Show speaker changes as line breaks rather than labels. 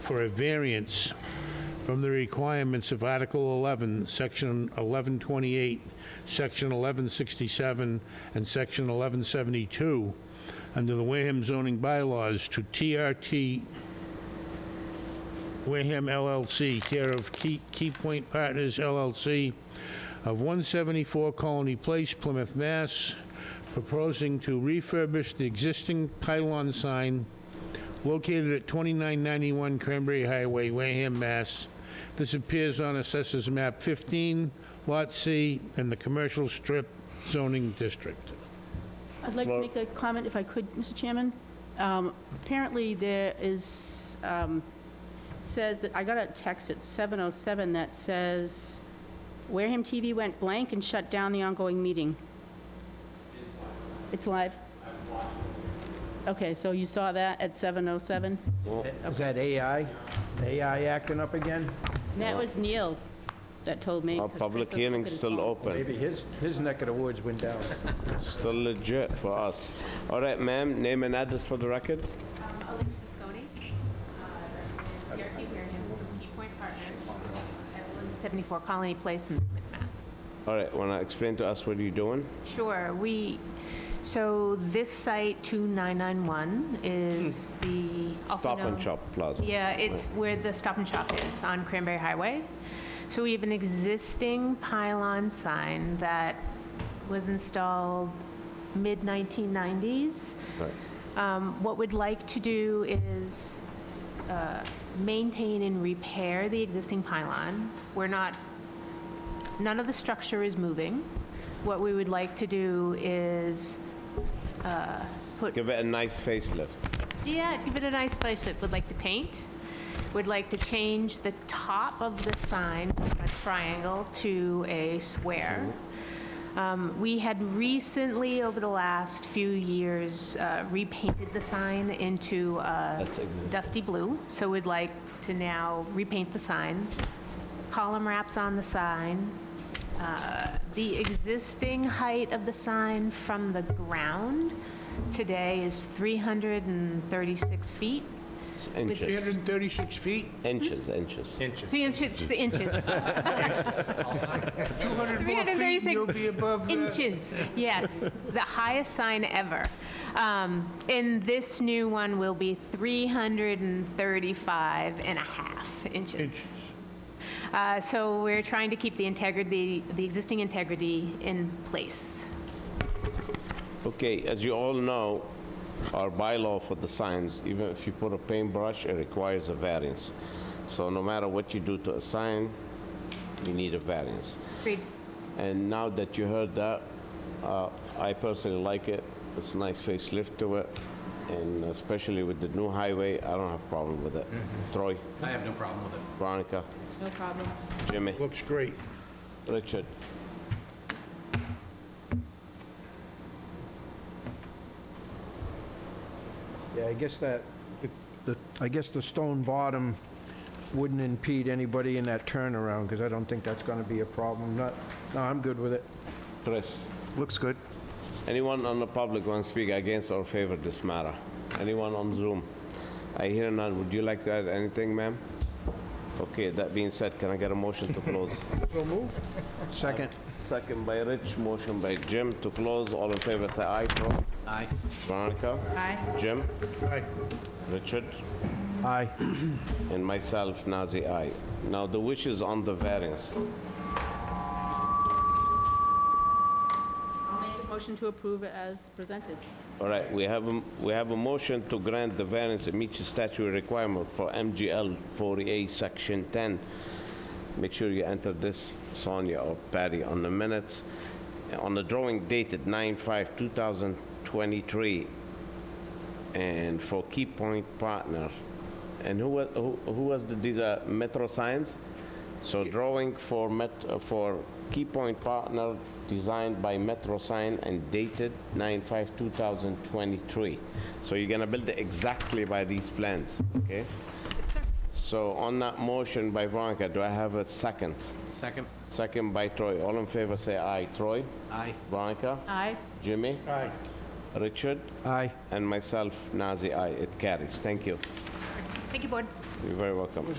for a variance from the requirements of Article 11, Section 1128, Section 1167, and Section 1172 under the Wareham zoning bylaws to TRT Wareham LLC, care of Key Key Point Partners LLC of 174 Colony Place, Plymouth, Mass., proposing to refurbish the existing pylon sign located at 2991 Cranberry Highway, Wareham, Mass. This appears on Assessors Map 15, Lot C, in the Commercial Strip zoning district.
I'd like to
Well-
make a comment if I could, Mr. Chairman. Um, Apparently, there is, um, it says that, I got a text at 7:07 that says, Wareham TV went blank and shut down the ongoing meeting. It's live. Okay, so you saw that at 7:07?
Is that AI? AI acting up again?
That was Neil that told me.
Our
'cause
public
Crystal took
hearing's
his
still
phone.
open,
Maybe his, his neck of the woods went down.
still legit for us. All right, ma'am, name and address for the record.
Um, Alicia Visconti, uh, represents CRT Wareham, Key Point Partners, at 174 Colony Place in Plymouth, Mass.
All right, want to explain to us what you're doing?
Sure, we, so this site, 2991, is the, also
Stop and
known-
Shop Plaza.
Yeah, it's where the Stop and Shop is, on Cranberry Highway. So we have an existing pylon sign that was installed mid-1990s.
Right.
Um, What we'd like to do is uh, maintain and repair the existing pylon. We're not, none of the structure is moving. What we would like to do is uh, put
Give it a nice facelift.
yeah, give it a nice facelift. Would like to paint. Would like to change the top of the sign from a triangle to a square. Um, We had recently, over the last few years, uh, repainted the sign into uh,
That's existing.
dusty blue. So we'd like to now repaint the sign. Column wraps on the sign. Uh, The existing height of the sign from the ground today is 336 feet.
It's inches,
336 feet?
inches, inches.
Three inches, inches,
200
more feet and you'll
be above
inches, yes, the highest sign ever. Um, And this new one will be 335 and a half inches. Uh, So we're trying to keep the integrity, the existing integrity in place.
Okay, as you all know, our bylaw for the signs, even if you put a paintbrush, it requires a variance. So no matter what you do to a sign, you need a variance.
Agreed.
And now that you heard that, uh, I personally like it. It's a nice facelift to it, and especially with the new highway, I don't have a problem with it. Troy,
Mm-hmm. I have no problem with it.
Veronica,
No problem.
Jimmy,
Looks great.
Richard.
Yeah, I guess that, the, I guess the stone bottom wouldn't impede anybody in that turnaround, because I don't think that's gonna be a problem. Not, no, I'm good with it.
Chris,
Looks good.
anyone on the public want to speak against or favor this matter? Anyone on Zoom? I hear none. Would you like to add anything, ma'am? Okay, that being said, can I get a motion to close?
Second.
Second by Rich, motion by Jim to close. All in favor, say aye. Troy?
Aye.
Veronica?
Aye.
Jim?
Aye.
Richard?
Aye.
And myself, Nazi I. Now, the wish is on the variance.
I'll make a motion to approve as presented.
All right, we have, a- we have a motion to grant the variance and meet the statutory requirement for MGL 40A, Section 10. Make sure you enter this, Sonia or Patty, on the minutes. On the drawing dated 9/5/2023, and for Key Point Partner. And who was, who who was, the- these are Metro Science? So drawing for Met, uh, for Key Point Partner, designed by Metro Sign and dated 9/5/2023. So you're gonna build it exactly by these plans, okay? So on that motion by Veronica, do I have a second?
Second?
Second by Troy. All in favor, say aye. Troy?
Aye.
Veronica?
Aye.
Jimmy?
Aye.
Richard?
Aye.
And myself, Nazi, aye. It carries. Thank you.
Thank you, Board.
You're very welcome.